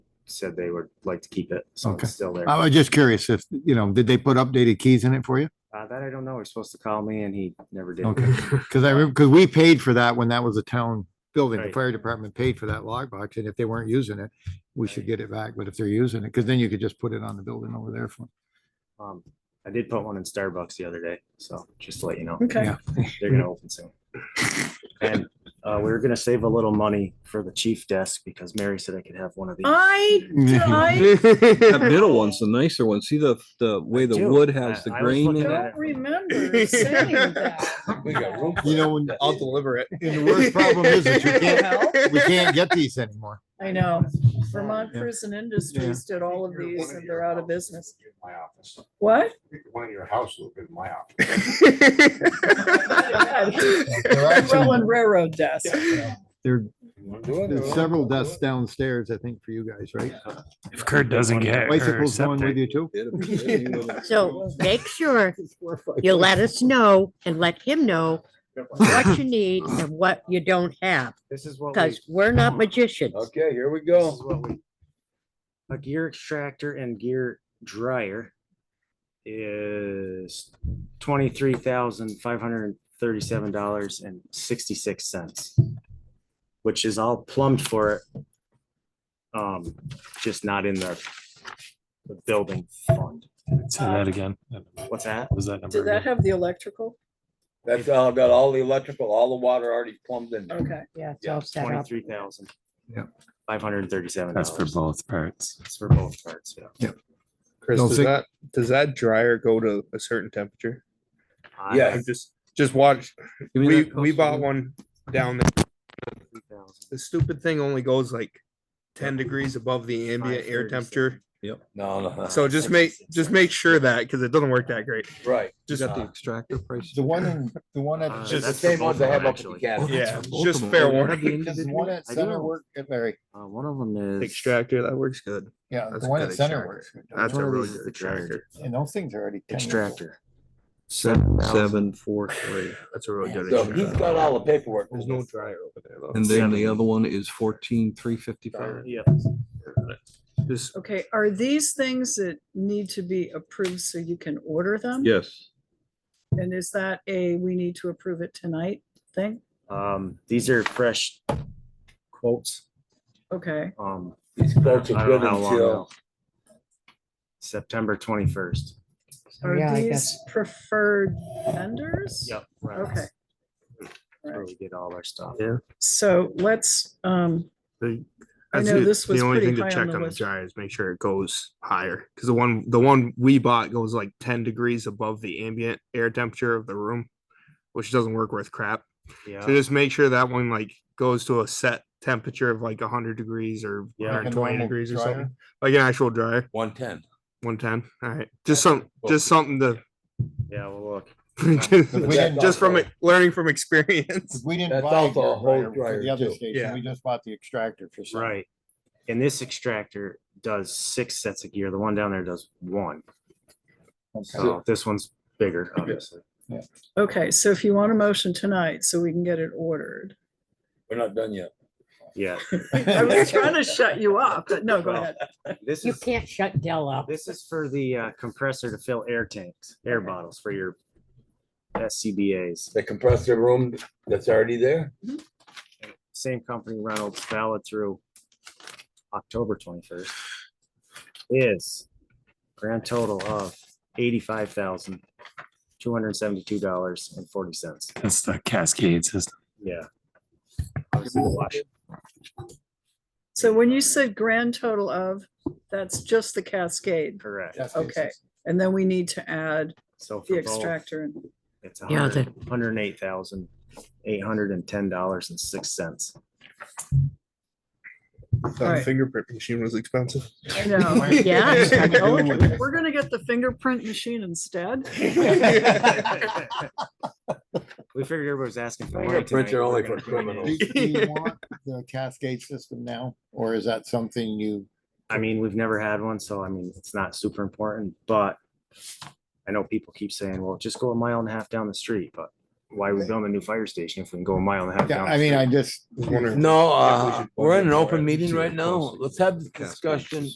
said they would like to keep it, so Okay. Uh, it's still there. I was just curious if, you know, did they put updated keys in it for you? Uh, that I don't know. He's supposed to call me and he never did. Okay. Cause I remember, cause we paid for that when that was a town building. The Right. fire department paid for that log box and if they weren't using it, we should Right. get it back. But if they're using it, cause then you could just put it on the building over there for. Um, I did put one in Starbucks the other day, so just to let you know, Yeah. Okay, they're gonna open soon. And, uh, we were gonna save a little money for the chief desk because Mary said I could have one of these. I, I That That middle one's the nicer one. See the, the way the do. wood has I- the I was grain in looking at it? it. don't remember saying that. You know, when, I'll deliver it. and the worst problem is that you Well, can't, we can't get these anymore. I know, Vermont Prison Industries did all of these and they're out of business. What? One of your house will be in my office. There are some- Roland Railroad desk. There, there's There's several desks downstairs, I think, for you guys, right? If Kurt doesn't get her Bicycles going with septic, you too? So make sure you let us know and let him know what you need and what you don't have, This is what we, because we're not magicians. Okay, here we this is go. what we, a gear extractor and gear dryer is twenty-three thousand five hundred and thirty-seven dollars and sixty-six cents, which is all plumbed for it. Um, just not in the, the building fund. say that again. What's that? Um, Was that number? Did that again? have the electrical? That's all, got all the electrical, all the water already plumbed in. there. Okay, Yeah, it's Yeah, all set up. Twenty-three thousand. Yep. Five hundred and thirty-seven That's dollars. for both parts. That's for both parts, yeah. Chris, Don't does think- that, does that dryer go to a certain temperature? I- Yeah, just, just watch. Give me We, that we coaster. bought one down there. 23,000. The stupid thing only goes like ten degrees above the ambient air 536. temperature. No, no, So just make, just make sure that, because it doesn't work that great. right. You Just, got the extractor price. The one, in- the one Uh, at, Just- The that's same for ones both I of have them, up at the actually. cabin. yeah, for both just of them. fair Oh, warning. yeah, the does the one individual? at I do Center have- work, at Larry? Uh, one of them is. Extractor, that works good. Yeah, That's the one a at good Center extractor. works. That's one a of really these is good the dryer. extractor. And those things are already. 10 years old. Extractor. Seven, 7,000. seven, four, three. That's a really good So he's extractor. got all the paperwork. There's no dryer over there though. And then the other one is fourteen, three fifty-five. Yeah. Just, okay, are these things that need to be approved so you can order them? Yes. And is that a, we need to approve it tonight thing? Um, these are fresh quotes. Okay, Um, These quotes I are don't good know how long until. they'll- September twenty-first. Yeah, are I these guess. preferred vendors? Yep. Okay. All Where right. we get all our stuff. Yeah. So let's, um, the- I that's know the- this was The only pretty thing to high on check the on the list. dryer is make sure it goes higher, because the one, the one we bought goes like ten degrees above the ambient air temperature of the room, which doesn't work worth crap. Yeah. So just make sure that one like goes to a set temperature of like hundred degrees or Yeah. Like a 120 normal degrees or dryer? something, like an actual dryer, One ten. one ten. All right, just some, just something to, Yeah, well, look, we didn't- just from it, learning from experience. We didn't That's buy also a the whole dryer for dryer, the other too. station. Yeah. We just bought the extractor for. some. right. And this extractor does six sets of gear. The one down there does one. Okay. So this one's bigger, obviously. okay, so if you want a motion tonight, so we can get it ordered. We're not done yet. Yeah. I was trying to shut you up, but no, go Well, ahead. This You is, can't shut Dell up. this is for the uh, compressor to fill air tanks, air bottles for your SCBA's. The compressor room that's already there? Same company Reynolds valid through October twenty-first is grand total of eighty-five thousand, two hundred and seventy-two dollars and forty cents. That's the cascade system. Yeah. Obviously, the wash- So when you said grand total of, that's just the cascade. Correct. That's it. Okay, and then we need to add So the for both, extractor. and it's Yeah, the- one hundred eight thousand, eight hundred and ten dollars and six cents. The Alright. fingerprint machine was expensive. I know. Yeah, I told you. We're gonna get the fingerprint machine instead. We figured everybody was asking for money Fingerprints tonight. are only We're for gonna bring it in. criminals. Do do you want The cascade system now, or is that something you? I mean, we've never had one, so I mean, it's not super important, but I know people keep saying, well, just go a mile and a half down the street, but why are we building a new fire station if we can go a mile and a half Yeah, down? the I mean, street? I just. wondering- No, Yeah, we uh, should we're in an order it. open meeting See right what now. costs. Let's have this Gas discussion